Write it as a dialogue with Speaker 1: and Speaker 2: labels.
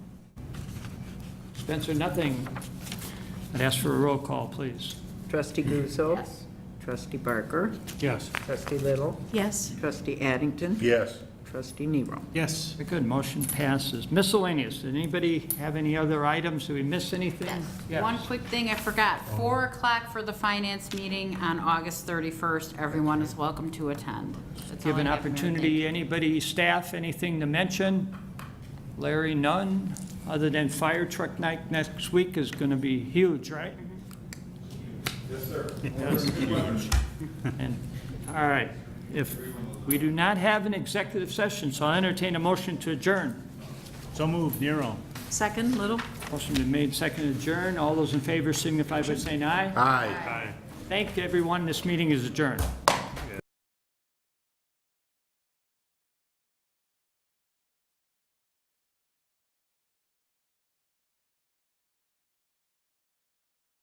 Speaker 1: Spencer, nothing. I'd ask for a roll call, please.
Speaker 2: Trustee Guzzo. Trustee Barker.
Speaker 1: Yes.
Speaker 2: Trustee Little.
Speaker 3: Yes.
Speaker 2: Trustee Addington.
Speaker 4: Yes.
Speaker 2: Trustee Nero.
Speaker 1: Yes. Very good, motion passes. Miscellaneous, did anybody have any other items? Did we miss anything? Yes.
Speaker 5: One quick thing I forgot, four o'clock for the finance meeting on August thirty-first. Everyone is welcome to attend. That's all
Speaker 1: Give an
Speaker 5: Oh, I have, Mayor. Thank
Speaker 1: opportunity, anybody, staff, anything to mention? Larry, none, other than fire truck night next week is going to be huge, right? Yes, sir. All right, if, we do not have an executive session, so I entertain a motion to adjourn.
Speaker 4: So moved, Nero.
Speaker 3: Second, Little?
Speaker 1: Motion been made, second adjourn, all those in favor signify by saying aye.
Speaker 4: Aye.
Speaker 1: Thank everyone, this meeting is adjourned.